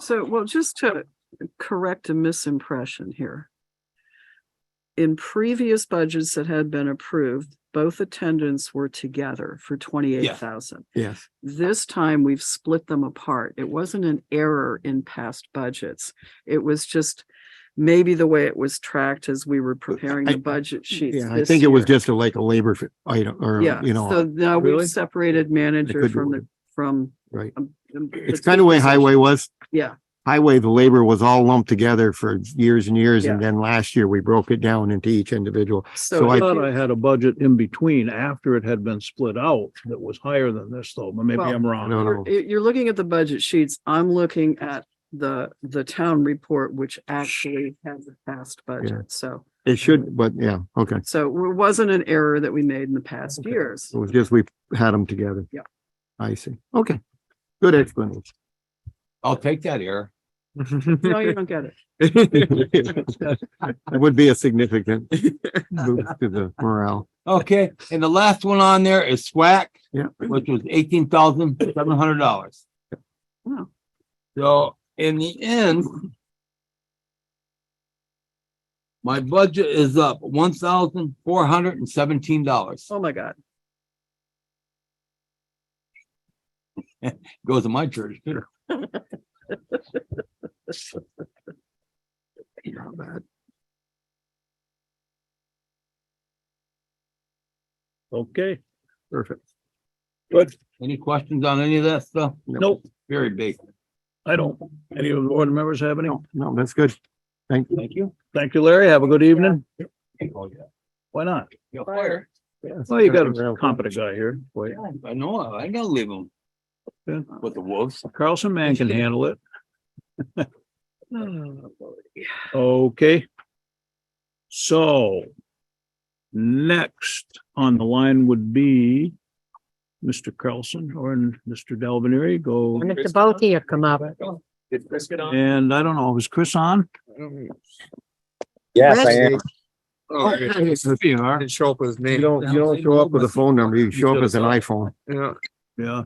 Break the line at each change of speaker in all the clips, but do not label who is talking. So, well, just to correct a misimpression here. In previous budgets that had been approved, both attendants were together for twenty-eight thousand.
Yes.
This time we've split them apart. It wasn't an error in past budgets. It was just maybe the way it was tracked as we were preparing
I-
the budget sheets.
Yeah, I
this
think it was
year.
just a like a labor f- item or,
Yeah,
you
so
know,
now
Really?
we've separated manager
could be
from the,
weird.
from.
right.
um, um, the
It's
two
kind of way
positions.
highway was.
Yeah,
Highway, the labor was all lumped together for years and years. And
Yeah.
then last year we broke it down into each individual.
so.
So I-
if
thought
you-
I had a budget in between after it had been split out that was higher than this though, but maybe
Well-
I'm
I
wrong.
don't know.
You're, you're- you're looking at the budget sheets. I'm looking at the, the town report, which actually has a past
Yeah.
budget. So,
It should, but yeah, okay.
so it wasn't an error that we made in the past
Okay.
years.
It was just we had them together.
Yeah.
I see. Okay. Good explanation.
I'll take that error.
No, you don't get it.
That would be a significant boost to the morale.
Okay, and the last one on there is SWAC,
Yeah.
which was eighteen thousand seven hundred dollars.
Wow.
So in the end. My budget is up one thousand four hundred and seventeen dollars.
Oh, my God.
Goes to my church too.
Not bad.
Okay,
Perfect.
Any questions on any of that stuff?
nope,
Very basic.
I don't. Any of the board members have any?
No, no, that's good. Thank you.
Thank you.
Thank you, Larry. Have a good evening.
Oh, yeah.
Why not?
You're fired.
Well, you got a competent guy here. Wait,
I know, I ain't gotta leave them
Yeah.
with the wolves.
Carlson man can handle it. Okay. So next on the line would be Mr. Carlson or Mr. Delvenery go.
And Mr. Boccia come up.
Did Chris get on?
And I don't know, is Chris on?
Yes, I am.
You are.
Didn't show up with his
You
name.
don't, you don't show up with a phone number. You show up as an iPhone.
Yeah.
Yeah.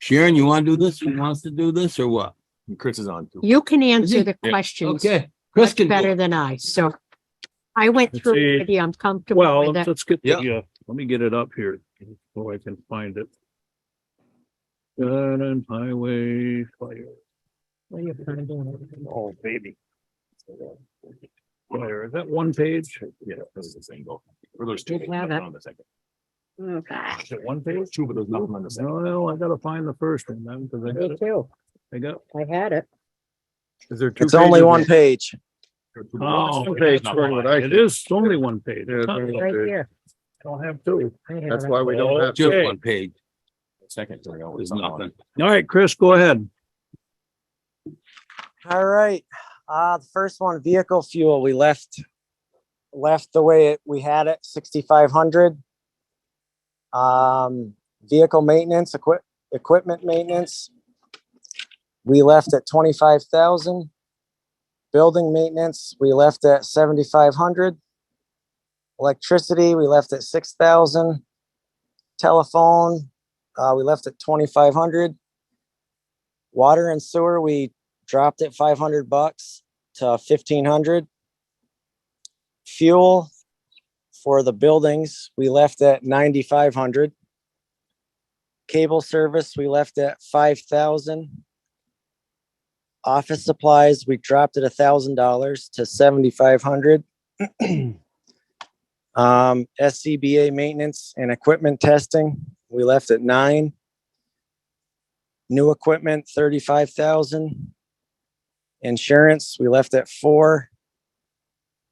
Sharon, you wanna do this? You want us to do this or what?
Chris is on too.
You can answer
he?
the questions
Okay, Chris
much
can do it.
better than I, so. I went
Let's
through,
see.
it. Yeah, I'm comfortable
Well,
with it.
let's get,
Yeah.
yeah, uh, let me get it up here so I can find it. Gun and highway fire,
Oh, baby.
fire. Is that one page?
Yeah, this is the same goal. Or there's two.
Wow, that-
On the second.
Oh,
Okay.
Is it one page? Two, but there's nothing on the second.
No, I gotta find the first one, then, because I got, it-
too.
I got.
I had it.
Is there two?
It's only
pages?
one page.
Oh, okay,
There's
it's
nothing on
only-
it.
it is only one page.
Yeah, it's only
I
Right here.
don't have two.
I have
That's
it.
why we don't have.
Just
Okay.
one page.
Second. there
There's
was something on it.
nothing.
All right, Chris, go ahead.
All right. Uh, the first one, vehicle fuel, we left, left the way it- we had it, sixty-five hundred. Um, vehicle maintenance, equip, equipment maintenance. We left at twenty-five thousand. Building maintenance, we left at seventy-five hundred. Electricity, we left at six thousand. Telephone, uh, we left at twenty-five hundred. Water and sewer, we dropped it 500 bucks to 1500 fuel for the buildings we left at 9500 cable service we left at 5000 office supplies we dropped it $1000 to 7500 um scba maintenance and equipment testing we left at 9 new equipment 35000 Insurance, we left at four.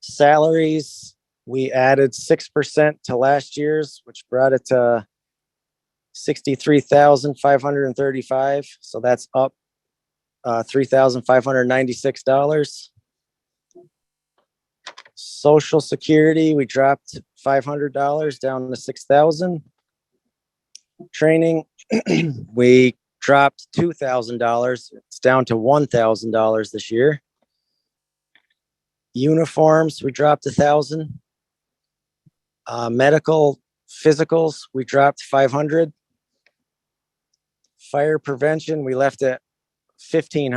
Salaries, we added six percent to last year's, which brought it to sixty-three thousand five hundred and thirty-five, so that's up uh, three thousand five hundred ninety-six dollars. Social Security, we dropped five hundred dollars down to six thousand. Training, we dropped two thousand dollars. It's down to one thousand dollars this year. Uniforms, we dropped a thousand. Uh, medical physicals, we dropped five hundred. Fire prevention, we left at fifteen hundred.